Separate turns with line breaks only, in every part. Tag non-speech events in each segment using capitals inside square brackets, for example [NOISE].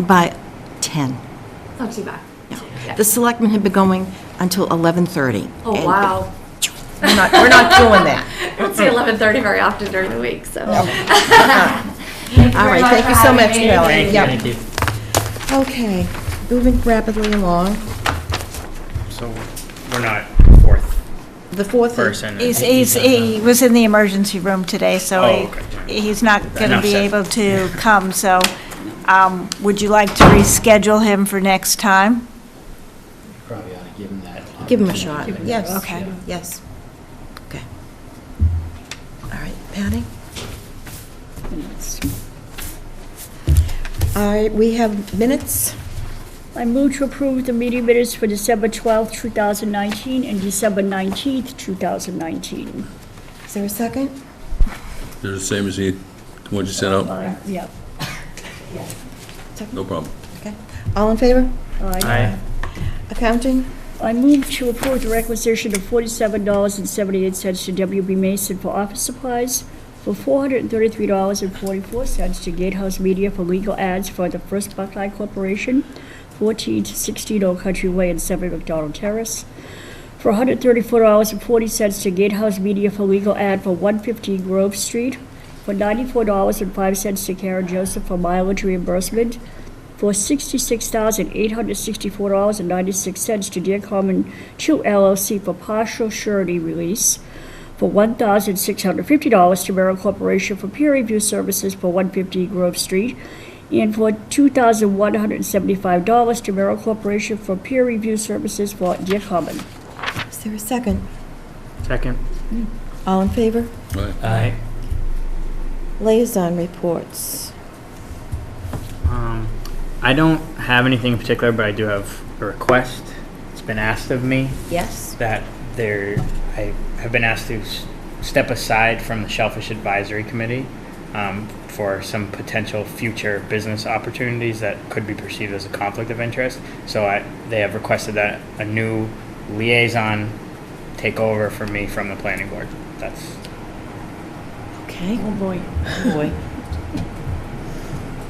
by 10.
Not too bad.
No. The selectmen had been going until 11:30.
Oh,
and [LAUGHS]
wow.
We're not, we're not doing [LAUGHS] that.
I don't see 11:30 very often during the week, [LAUGHS] so.
All right, thank you so much, Kelly. Yep.
Thank you.
Okay, moving rapidly along.
So we're not fourth.
The fourth.
Person.
He's, he's, he was in the emergency room today, so
Oh, okay.
he, he's not going to
Enough
be
said.
able to come, so, um, would you like to reschedule him for next time?
Probably ought to give him that.
Give him a shot, yes.
Okay.
Yes. Okay. All right, Patty? All right, we have minutes.
I move to approve the meeting minutes for December 12th, 2019, and December 19th, 2019.
Is there a second?
They're the same as the ones you sent out?
Uh, Yep.
No problem.
Okay. All in favor?
Aye.
Accounting?
I move to approve the requisition of $47.78 to WB Mason for office supplies, for $433.44 to Gatehouse Media for legal ads for the First Buckeye Corporation, 14 to 16 Old Country Way and 7 McDonald Terrace, for $134.40 to Gatehouse Media for legal ad for 115 Grove Street, for $94.05 to Karen Joseph for mileage reimbursement, for $66,864.96 to Dear Common 2 LLC for partial surety release, for $1,650 to Merrill Corporation for peer review services for 150 Grove Street, and for $2,175 to Merrill Corporation for peer review services for Dear Common.
Is there a second?
Second.
All in favor?
Aye.
Aye.
Liaison reports.
Um, I don't have anything in particular, but I do have a request. It's been asked of me
Yes.
that there, I have been asked to s- step aside from the Shellfish Advisory Committee um, for some potential future business opportunities that could be perceived as a conflict of interest. So I, they have requested that a new liaison take over for me from the planning board. That's
Okay.
Oh, boy.
Boy.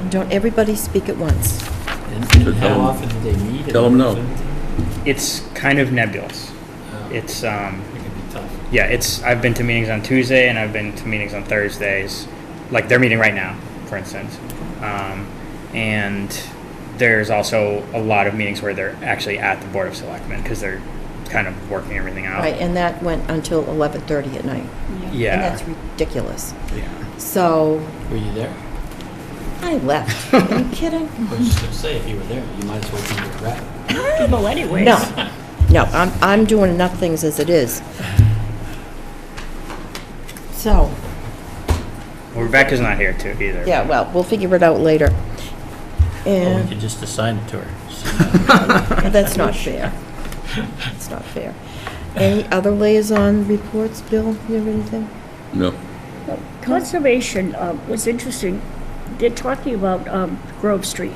And don't everybody speak at once.
And
So tell
how
him-
often do they meet?
tell him no.
it's kind of nebulous.
Oh, It
It's um,
can be tough.
yeah, it's I've been to meetings on Tuesday and I've been to meetings on Thursdays. Like they're meeting right now, for instance. Um, and there's also a lot of meetings where they're actually at the Board of Selectmen because they're kind of working everything out.
Right, and that went until 11:30 at night. And
Oh. Yeah.
that's ridiculous.
yeah.
So
Were you there?
I left. Are you kidding?
I was just gonna say, if you were there, you might as well be a rep.
Well, anyways.
No, no, I'm, I'm doing enough things as it is. So,
Well, Rebecca's not here too either.
yeah, well, we'll figure it out later.
Or we
And
could just assign it to her. So
[LAUGHS] that's not fair. That's not fair. Any other liaison reports, Bill? You have anything?
No.
Conservation um, was interesting. They're talking about um, Grove Street,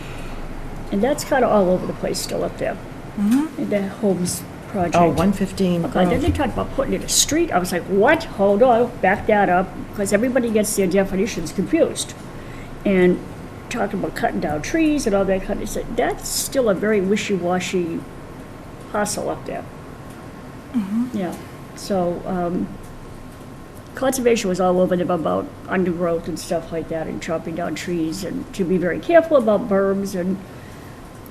and that's kind of all over the place still up there. And the Holmes project.
Oh, 115.
God, then they talked about putting in a street. I was like, what? Hold on, back that up, because everybody gets their definitions confused. And talking about cutting down trees and all that kind of stuff. That's still a very wishy-washy hustle up there. Yeah, so, um, conservation was all over them about undergrowth and stuff like that and chopping down trees and to be very careful about berms and,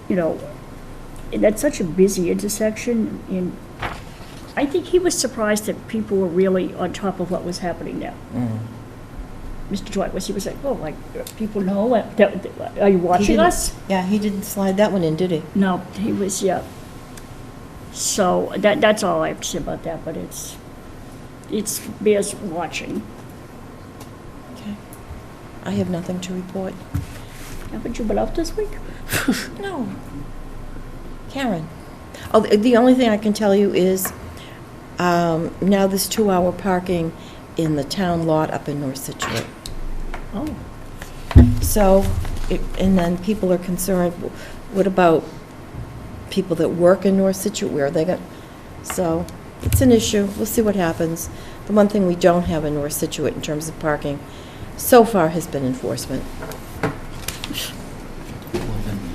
you know, and that's such a busy intersection and I think he was surprised that people were really on top of what was happening now.
Mm-hmm.
Mr. Dwight was, he was like, oh, like, people know, what- that- that- are you
He
watching
didn't-
us?
Yeah, he didn't slide that one in, did he?
No, he was, yeah. So that, that's all I have to say about that, but it's, it's bears watching.
Okay. I have nothing to report.
Haven't you been out this week?
No. Karen? Oh, the the only thing I can tell you is, um, now there's two-hour parking in the town lot up in North Situate.
Oh.
So, it- and then people are concerned, w- what about people that work in North Situate? Where are they going? So, it's an issue. We'll see what happens. The one thing we don't have in North Situate in terms of parking so far has been enforcement.